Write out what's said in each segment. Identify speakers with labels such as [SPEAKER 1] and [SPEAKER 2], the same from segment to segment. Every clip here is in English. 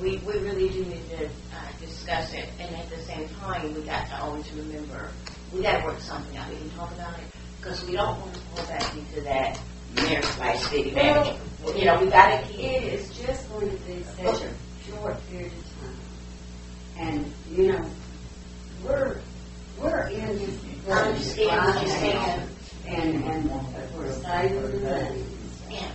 [SPEAKER 1] we, we really do need to uh, discuss it, and at the same time, we got to always remember, we gotta work something out, we can talk about it, because we don't want to fall back into that mayor vice city manager. You know, we gotta keep,
[SPEAKER 2] It is just going to be such a short period of time. And, you know, we're, we're in this.
[SPEAKER 1] I understand what you're saying.
[SPEAKER 2] And, and we're saving the money.
[SPEAKER 1] yeah.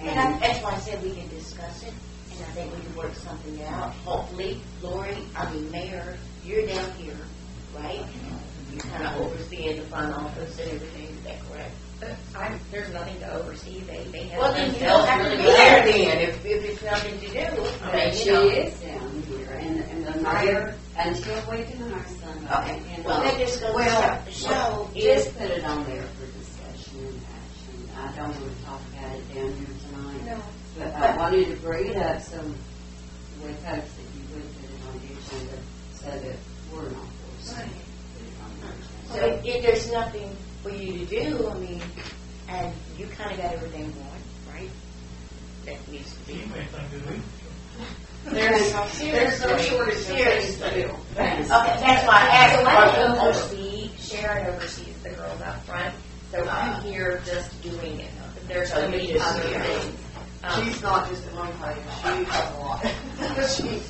[SPEAKER 1] And I-
[SPEAKER 2] And,
[SPEAKER 1] that's why I said we can discuss it, and I think we can work something out. Hopefully, Lori, I mean, Mayor, you're down here, right? You're kind of overseeing the front office and everything, is that correct?
[SPEAKER 3] But Uh, I'm, there's nothing to oversee, they, they have.
[SPEAKER 1] Well, then you
[SPEAKER 3] themselves
[SPEAKER 1] don't have to
[SPEAKER 3] really
[SPEAKER 1] be
[SPEAKER 3] well.
[SPEAKER 1] there then, if, if it's nothing to do, I
[SPEAKER 2] but
[SPEAKER 1] mean,
[SPEAKER 2] she
[SPEAKER 1] you know.
[SPEAKER 2] is down here, and, and the mayor, until we do our son.
[SPEAKER 1] Okay, well, then just go,
[SPEAKER 2] Well,
[SPEAKER 1] so, is,
[SPEAKER 2] Just put it on there for discussion and action. I don't want to talk about it down here tonight.
[SPEAKER 3] No,
[SPEAKER 2] But I wanted to bring it up so with hopes that you would put it on the agenda so that we're not forced to put
[SPEAKER 3] Right.
[SPEAKER 2] it on the agenda.
[SPEAKER 1] so if if there's nothing for you to do, I mean, and you kind of got everything going, right? That needs to be. There's, there's no shortage of things to do.
[SPEAKER 2] Thanks.
[SPEAKER 1] Okay, that's why I asked.
[SPEAKER 3] So I don't oversee, Sharon oversees the girls out front, so I'm here just doing it. There's
[SPEAKER 1] So
[SPEAKER 3] so
[SPEAKER 1] you
[SPEAKER 3] many
[SPEAKER 1] just
[SPEAKER 3] other
[SPEAKER 1] here.
[SPEAKER 3] things. Um,
[SPEAKER 4] She's not just in one place, she has a lot. She,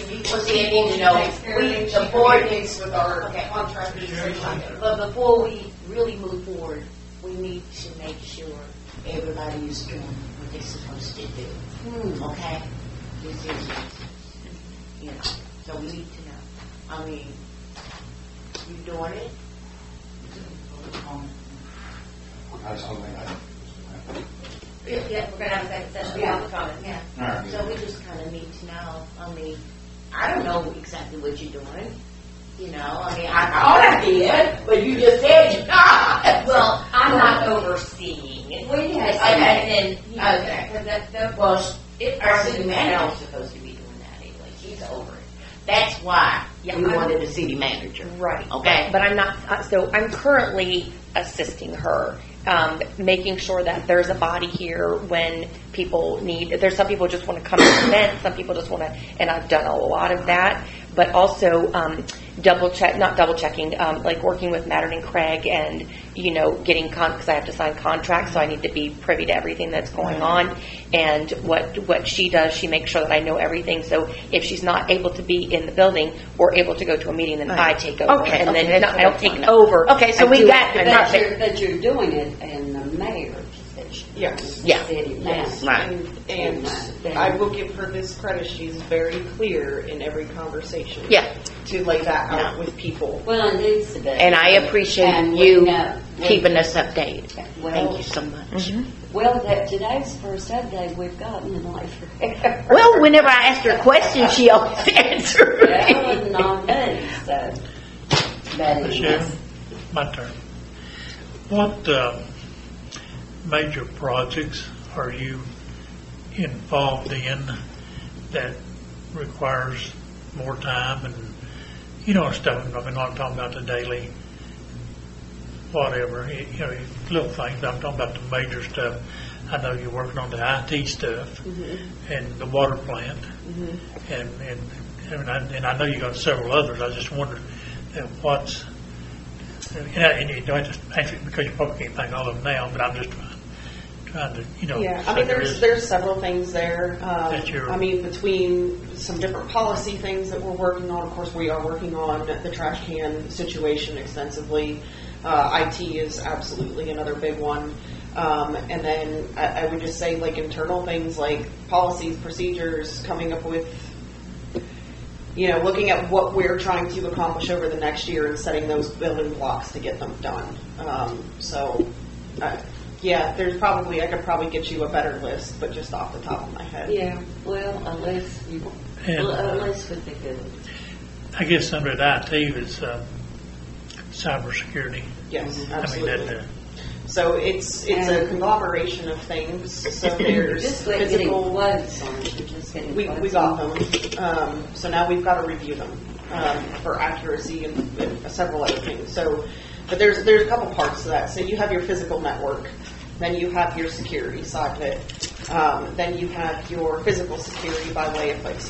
[SPEAKER 4] she meets.
[SPEAKER 1] Well, see, I need to know,
[SPEAKER 4] takes care of
[SPEAKER 1] we-
[SPEAKER 4] things,
[SPEAKER 1] the
[SPEAKER 4] she
[SPEAKER 1] board-
[SPEAKER 4] communicates with our
[SPEAKER 1] Okay.
[SPEAKER 4] contractors and everything.
[SPEAKER 1] But before we really move forward, we need to make sure everybody is doing what they're supposed to do.
[SPEAKER 2] Hmm.
[SPEAKER 1] okay? This is, you know, so we need to know. I mean, you doing it?
[SPEAKER 5] I was hoping I.
[SPEAKER 3] Yeah, yeah, we're gonna have a second session, we have a comment.
[SPEAKER 1] Yeah.
[SPEAKER 5] All right.
[SPEAKER 1] So we just kind of need to know, I mean, I don't know exactly what you're doing, you know, I mean, I thought I did, but you just said you're not.
[SPEAKER 3] Well, I'm not overseeing it.
[SPEAKER 2] We had,
[SPEAKER 3] Okay, then, okay, because that, that,
[SPEAKER 1] Well, sh-
[SPEAKER 3] it,
[SPEAKER 1] our city manager was supposed to be doing that anyway, she's over it. That's why we
[SPEAKER 3] Yeah, I'm-
[SPEAKER 1] wanted a city manager,
[SPEAKER 6] Right.
[SPEAKER 1] okay?
[SPEAKER 6] But I'm not, uh, so I'm currently assisting her, um, making sure that there's a body here when people need, there's some people just want to come to events, some people just want to, and I've done a lot of that, but also um, double check, not double checking, um, like working with Mattern and Craig and, you know, getting con, because I have to sign contracts, so I need to be privy to everything that's going on. And what, what she does, she makes sure that I know everything, so if she's not able to be in the building or able to go to a meeting, then I take over.
[SPEAKER 1] Okay,
[SPEAKER 6] And
[SPEAKER 1] okay,
[SPEAKER 6] then, no,
[SPEAKER 1] that's
[SPEAKER 6] I don't
[SPEAKER 1] what
[SPEAKER 6] take
[SPEAKER 1] I'm
[SPEAKER 6] it
[SPEAKER 1] talking
[SPEAKER 6] over.
[SPEAKER 1] Okay, so
[SPEAKER 6] I
[SPEAKER 1] we
[SPEAKER 6] do
[SPEAKER 1] got
[SPEAKER 6] it,
[SPEAKER 1] the
[SPEAKER 6] but
[SPEAKER 2] but
[SPEAKER 6] they-
[SPEAKER 2] you're, but you're doing it in the mayor's position.
[SPEAKER 4] Yes.
[SPEAKER 1] Yeah.
[SPEAKER 2] City
[SPEAKER 4] Yes.
[SPEAKER 2] manager.
[SPEAKER 1] Right.
[SPEAKER 4] And I will give her this credit, she's very clear in every conversation.
[SPEAKER 6] Yeah.
[SPEAKER 4] To lay that out with people.
[SPEAKER 2] Well, it needs to be.
[SPEAKER 1] And I appreciate
[SPEAKER 2] And we
[SPEAKER 1] you
[SPEAKER 3] uh,
[SPEAKER 2] know- we-
[SPEAKER 1] keeping us updated.
[SPEAKER 2] Well-
[SPEAKER 1] Thank you so much.
[SPEAKER 3] mm-hmm.
[SPEAKER 2] Well, that, today's the first update we've gotten in like forever.
[SPEAKER 1] Well, whenever I asked her a question, she always answered.
[SPEAKER 2] That was not me, so. But it
[SPEAKER 7] Sharon,
[SPEAKER 2] was-
[SPEAKER 7] my turn. What uh, major projects are you involved in that requires more time and, you know, stuff, I mean, I'm talking about the daily, whatever, you know, little things, I'm talking about the major stuff. I know you're working on the IT stuff
[SPEAKER 4] Mm-hmm.
[SPEAKER 7] and the water plant. And, and, and I, and I know you got several others, I just wondered uh, what's, and I- and you don't just, actually, because you probably can't think all of them now, but I'm just trying, trying to, you know.
[SPEAKER 4] Yeah,
[SPEAKER 7] so
[SPEAKER 4] I mean,
[SPEAKER 7] there
[SPEAKER 4] there's,
[SPEAKER 7] is-
[SPEAKER 4] there's several things there. Um,
[SPEAKER 7] That you're-
[SPEAKER 4] I mean, between some different policy things that we're working on, of course, we are working on the trash can situation extensively. Uh, IT is absolutely another big one. Um, and then I, I would just say like internal things like policies, procedures, coming up with, you know, looking at what we're trying to accomplish over the next year and setting those building blocks to get them done. Um, so, uh, yeah, there's probably, I could probably get you a better list, but just off the top of my head.
[SPEAKER 2] Yeah, well, unless you,
[SPEAKER 7] And-
[SPEAKER 2] well, unless with the good.
[SPEAKER 7] I guess under the IT is uh, cybersecurity.
[SPEAKER 4] Yes,
[SPEAKER 7] I mean,
[SPEAKER 4] absolutely.
[SPEAKER 7] that, uh,
[SPEAKER 4] So it's, it's a
[SPEAKER 2] And-
[SPEAKER 4] conglomeration of things, so
[SPEAKER 2] You're
[SPEAKER 4] there's
[SPEAKER 2] just like getting
[SPEAKER 4] physical,
[SPEAKER 2] quotes on it, you're just getting
[SPEAKER 4] we,
[SPEAKER 2] quotes.
[SPEAKER 4] we got them. Um, so now we've got to review them, um, for accuracy and, and several other things. So, but there's, there's a couple parts to that. So you have your physical network, then you have your security side of it. Um, then you have your physical security by way of like